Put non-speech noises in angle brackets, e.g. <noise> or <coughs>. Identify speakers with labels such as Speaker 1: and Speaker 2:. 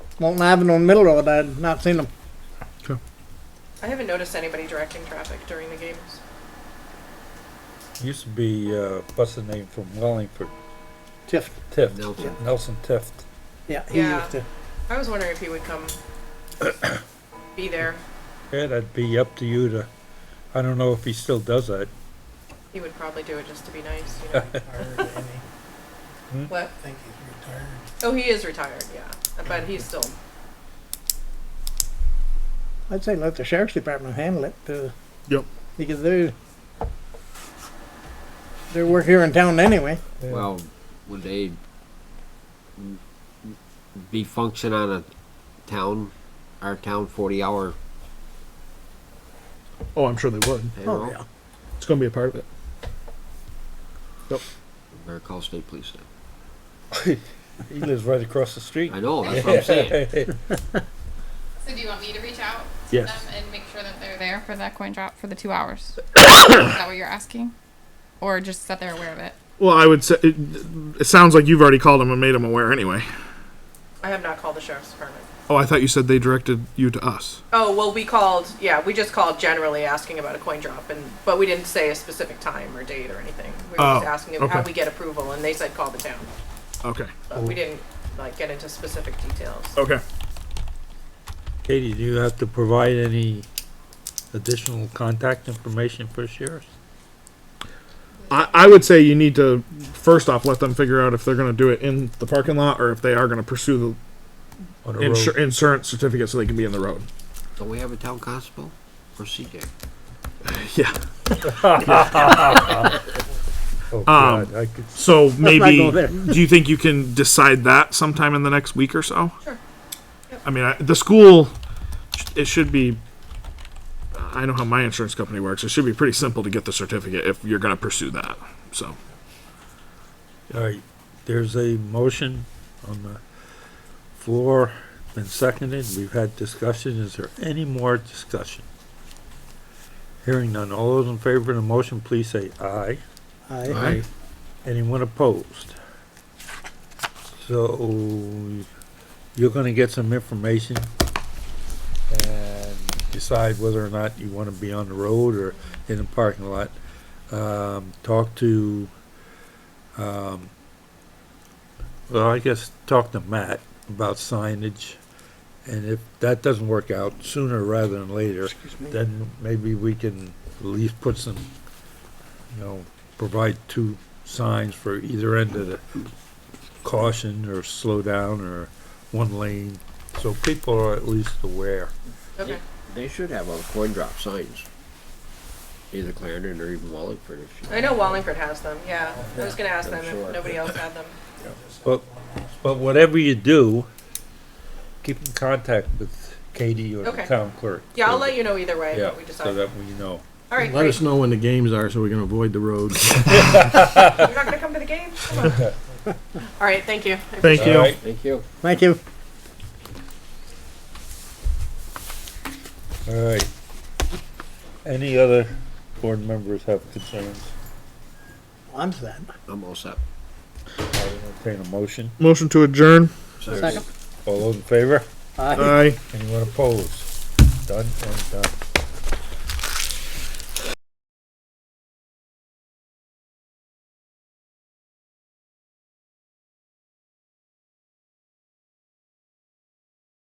Speaker 1: Walton Avenue and Middle Road, I'd not seen them.
Speaker 2: I haven't noticed anybody directing traffic during the games.
Speaker 3: Used to be, uh, what's the name from Wellingford?
Speaker 1: Tiff,
Speaker 3: Tift.
Speaker 4: Nelson.
Speaker 3: Nelson Tift.
Speaker 1: yeah, he
Speaker 2: Yeah.
Speaker 1: used to.
Speaker 2: I was wondering if he would
Speaker 5: <coughs>
Speaker 2: come be there.
Speaker 3: Yeah, that'd be up to you to, I don't know if he still does that.
Speaker 2: He would probably do it just to be nice, you
Speaker 5: <laughs>
Speaker 2: know.
Speaker 6: Retired, Andy.
Speaker 2: what?
Speaker 6: Hmm? I think he's retired.
Speaker 2: Oh, he is retired, yeah. But he's still
Speaker 1: I'd say let the sheriff's department handle it. Uh,
Speaker 5: Yep.
Speaker 1: Because they're they work here in town anyway.
Speaker 3: Yeah.
Speaker 4: Well, would they m- m- be function on a town, our town forty hour
Speaker 5: Oh, I'm sure they would.
Speaker 4: payroll?
Speaker 1: Oh,
Speaker 5: It's going to be a part of it.
Speaker 4: Better call state police then.
Speaker 3: He lives right across the street.
Speaker 4: I know, that's what
Speaker 3: <laughs>
Speaker 4: I'm saying.
Speaker 7: So do you want me to reach out to
Speaker 5: Yes.
Speaker 7: them and make sure that they're there for that coin drop for the two hours? Is that what you're asking? Or just that they're aware of it?
Speaker 5: Well, I would say it, it sounds like you've already called them and made them aware anyway.
Speaker 2: I have not called the sheriff's department.
Speaker 5: Oh, I thought you said they directed you to us.
Speaker 2: Oh, well we called yeah, we just called generally asking about a coin drop and but we didn't say a specific time or date or anything. We were just
Speaker 5: Oh,
Speaker 2: asking them how
Speaker 5: okay.
Speaker 2: we get approval and they said call the town.
Speaker 5: Okay.
Speaker 2: But we didn't like get into specific details.
Speaker 5: Okay.
Speaker 3: Katie, do you have to provide any additional contact information for sheriffs?
Speaker 5: I, I would say you need to first off let them figure out if they're going to do it in the parking lot or if they are going to pursue
Speaker 3: on
Speaker 5: the
Speaker 3: the
Speaker 5: insur-
Speaker 3: road?
Speaker 5: insurance certificate so they can be in the road.
Speaker 4: Don't we have a town constable or CJ?
Speaker 5: Yeah.
Speaker 3: Oh, God, I could,
Speaker 5: So
Speaker 1: not
Speaker 5: maybe
Speaker 1: go there.
Speaker 5: do you think you can decide that sometime in the next week or so?
Speaker 2: Sure.
Speaker 5: I mean, I, the school it should be I know how my insurance company works. It should be pretty simple to get the certificate if you're going to pursue that. So,
Speaker 3: all right, there's a motion on the floor, been seconded, we've had discussion, is there any more discussion? Hearing none, all those in favor of the motion, please say aye.
Speaker 1: I,
Speaker 3: Anyone opposed? So, you're gonna get some information and decide whether or not you wanna be on the road or in the parking lot. Um, talk to, um, well, I guess, talk to Matt about signage. And if that doesn't work out sooner rather than later,
Speaker 1: excuse me.
Speaker 3: then maybe we can at least put some, you know, provide two signs for either end of the caution or slow down or one lane, so people are at least aware.
Speaker 2: Okay.
Speaker 4: They should have on coin drop signs. Either Clarendon or even Wallingford if you.
Speaker 2: I know Wallingford has them, yeah. I was gonna ask them
Speaker 4: Sure.
Speaker 2: if nobody else had them.
Speaker 3: But, but whatever you do, keep in contact with Katie or the
Speaker 2: Okay.
Speaker 3: town clerk.
Speaker 2: Yeah, I'll let you know either way,
Speaker 3: Yeah,
Speaker 2: what we decide.
Speaker 3: so that we know.
Speaker 2: All right,
Speaker 4: Let
Speaker 2: great.
Speaker 4: us know when the games are so we can avoid the roads.
Speaker 2: You're not gonna come to the game? Come on.
Speaker 4: <laughs>
Speaker 2: All right, thank you. I
Speaker 5: thank you.
Speaker 3: All right,
Speaker 4: Thank you.
Speaker 1: Thank you.
Speaker 3: all right. Any other board members have concerns?
Speaker 1: I'm sad.
Speaker 4: I'm all set.
Speaker 3: I'll entertain a motion.
Speaker 5: Motion to adjourn.
Speaker 1: Second.
Speaker 3: All those in favor?
Speaker 1: Aye.
Speaker 5: Aye.
Speaker 3: Anyone opposed? Done and done.